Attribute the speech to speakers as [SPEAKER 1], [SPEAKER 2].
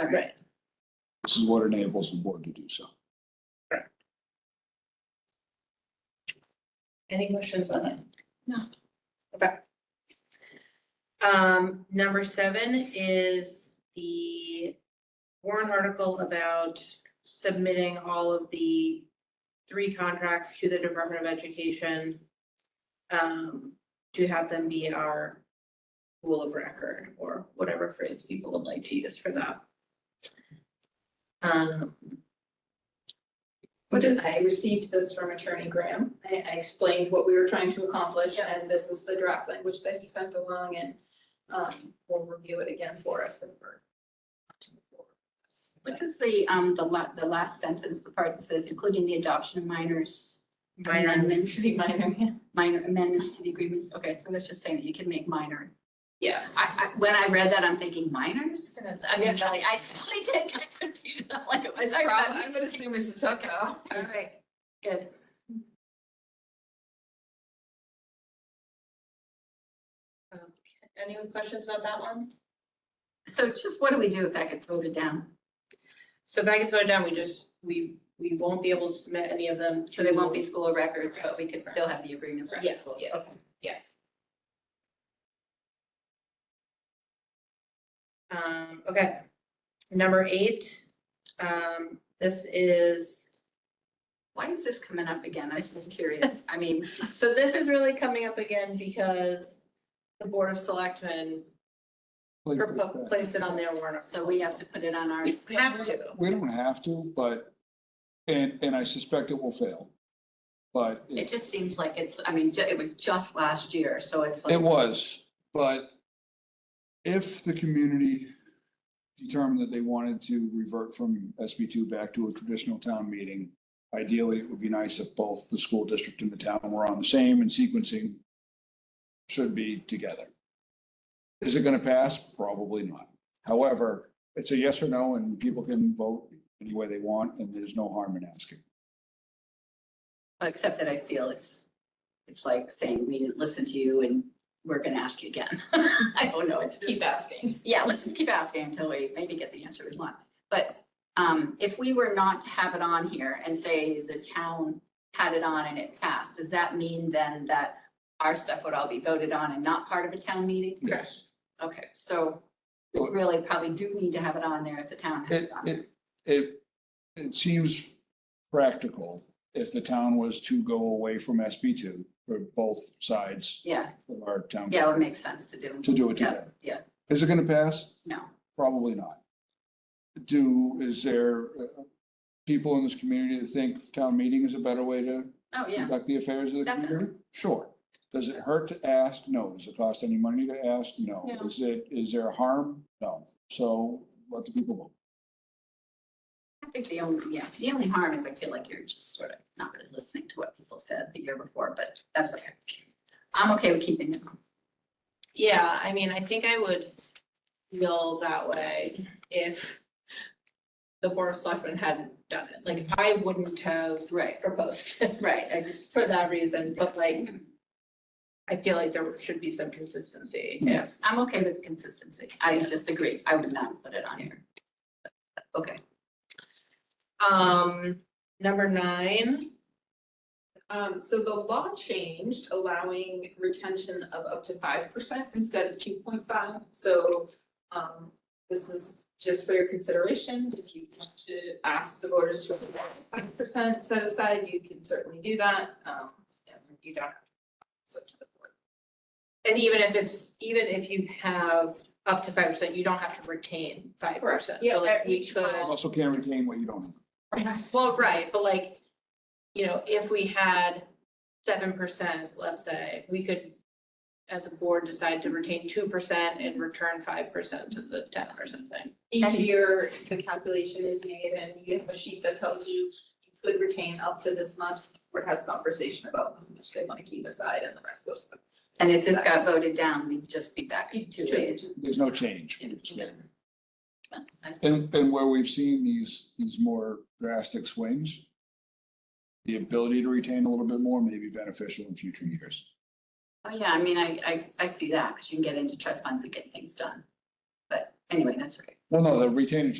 [SPEAKER 1] Right.
[SPEAKER 2] This is what enables the board to do so.
[SPEAKER 1] Any questions on that?
[SPEAKER 3] Um, number seven is the warrant article about submitting all of the three contracts to the Department of Education um, to have them be our rule of record or whatever phrase people would like to use for that. Um,
[SPEAKER 4] What is, I received this from Attorney Graham. I, I explained what we were trying to accomplish, and this is the draft language that he sent along, and, um, we'll review it again for us and for.
[SPEAKER 5] What is the, um, the la- the last sentence, the part that says including the adoption of minors
[SPEAKER 3] minor,
[SPEAKER 5] amendments,
[SPEAKER 4] Pretty minor, yeah.
[SPEAKER 5] minor amendments to the agreements? Okay, so that's just saying that you can make minor.
[SPEAKER 4] Yes.
[SPEAKER 5] I, I, when I read that, I'm thinking minors?
[SPEAKER 4] It's
[SPEAKER 5] I mean, I, I totally did get confused. I'm like, what are you
[SPEAKER 4] prob-
[SPEAKER 5] talking
[SPEAKER 4] I'm gonna assume it's a typo.
[SPEAKER 5] about? All right, good.
[SPEAKER 3] any questions about that one?
[SPEAKER 5] So just what do we do if that gets voted down?
[SPEAKER 3] So if that gets voted down, we just, we, we won't be able to submit any of them.
[SPEAKER 5] So they won't
[SPEAKER 3] to-
[SPEAKER 5] be school records, but we could still have the agreements for
[SPEAKER 3] Yes,
[SPEAKER 5] schools.
[SPEAKER 3] yes. Um, okay. Number eight, um, this is,
[SPEAKER 5] Why is this coming up again? I was just curious. I mean,
[SPEAKER 3] so this is really coming up again because the Board of Selectmen propo- placed it on their warrant.
[SPEAKER 5] so we have to put it on ours.
[SPEAKER 3] We Have to.
[SPEAKER 2] We don't have to, but, and, and I suspect it will fail. But
[SPEAKER 5] It
[SPEAKER 2] it,
[SPEAKER 5] just seems like it's, I mean, ju- it was just last year, so it's like.
[SPEAKER 2] it was, but if the community determined that they wanted to revert from SB two back to a traditional town meeting, ideally, it would be nice if both the school district and the town were on the same and sequencing should be together. Is it gonna pass? Probably not. However, it's a yes or no, and people can vote any way they want, and there's no harm in asking.
[SPEAKER 5] Except that I feel it's, it's like saying we didn't listen to you and we're gonna ask you again. I don't know, it's just,
[SPEAKER 4] Keep asking.
[SPEAKER 5] yeah, let's just keep asking until we maybe get the answer we want. But um, if we were not to have it on here and say the town had it on and it passed, does that mean then that our stuff would all be voted on and not part of a town meeting?
[SPEAKER 2] Yes.
[SPEAKER 5] Okay, so we really probably do need to have it on there if the town
[SPEAKER 2] It,
[SPEAKER 5] has it on. there.
[SPEAKER 2] it, it, it seems practical if the town was to go away from SB two for both sides
[SPEAKER 5] Yeah,
[SPEAKER 2] of our town.
[SPEAKER 5] yeah, it would make sense to do.
[SPEAKER 2] To do it
[SPEAKER 5] Yeah,
[SPEAKER 2] together.
[SPEAKER 5] yeah.
[SPEAKER 2] Is it gonna pass?
[SPEAKER 5] No.
[SPEAKER 2] Probably not. Do, is there uh, people in this community that think town meeting is a better way to
[SPEAKER 5] Oh, yeah.
[SPEAKER 2] conduct the affairs of the
[SPEAKER 5] Definitely.
[SPEAKER 2] community? Sure. Does it hurt to ask? No. Does it cost any money to ask? No.
[SPEAKER 5] No.
[SPEAKER 2] Is it, is there harm? No. So let the people vote.
[SPEAKER 5] I think the only, yeah, the only harm is I feel like you're just sort of not really listening to what people said the year before, but that's okay. I'm okay with keeping it.
[SPEAKER 3] Yeah, I mean, I think I would feel that way if the Board of Selectmen hadn't done it. Like, I wouldn't have
[SPEAKER 5] Right,
[SPEAKER 3] proposed it
[SPEAKER 5] right. I just,
[SPEAKER 3] for that reason, but like, I feel like there should be some consistency if
[SPEAKER 5] I'm okay with consistency. I just agree. I would not put it on here. Okay,
[SPEAKER 3] Um, number nine,
[SPEAKER 4] Um, so the law changed allowing retention of up to five percent instead of two point five, so, um, this is just for your consideration, if you want to ask the voters to approve five percent set aside, you can certainly do that, um, and you don't have to, it's up to the board.
[SPEAKER 3] and even if it's, even if you have up to five percent, you don't have to retain five percent.
[SPEAKER 4] Yeah,
[SPEAKER 3] So like
[SPEAKER 4] at
[SPEAKER 3] we
[SPEAKER 4] each
[SPEAKER 3] could,
[SPEAKER 4] level.
[SPEAKER 2] Also can't retain what you don't have.
[SPEAKER 3] well, right, but like, you know, if we had seven percent, let's say, we could as a board decide to retain two percent and return five percent to the town or something.
[SPEAKER 4] Each
[SPEAKER 5] And-
[SPEAKER 4] year, the calculation is made and you have a sheet that tells you you could retain up to this much, or it has conversation about how much they wanna keep aside and the rest goes. back.
[SPEAKER 5] and if this got voted down, we'd just be back to it.
[SPEAKER 2] There's no change.
[SPEAKER 5] Yeah.
[SPEAKER 2] And, and where we've seen these, these more drastic swings, the ability to retain a little bit more may be beneficial in future years.
[SPEAKER 5] Oh, yeah, I mean, I, I, I see that because you can get into trust funds and get things done. But anyway, that's right.
[SPEAKER 2] Well, no, the retaining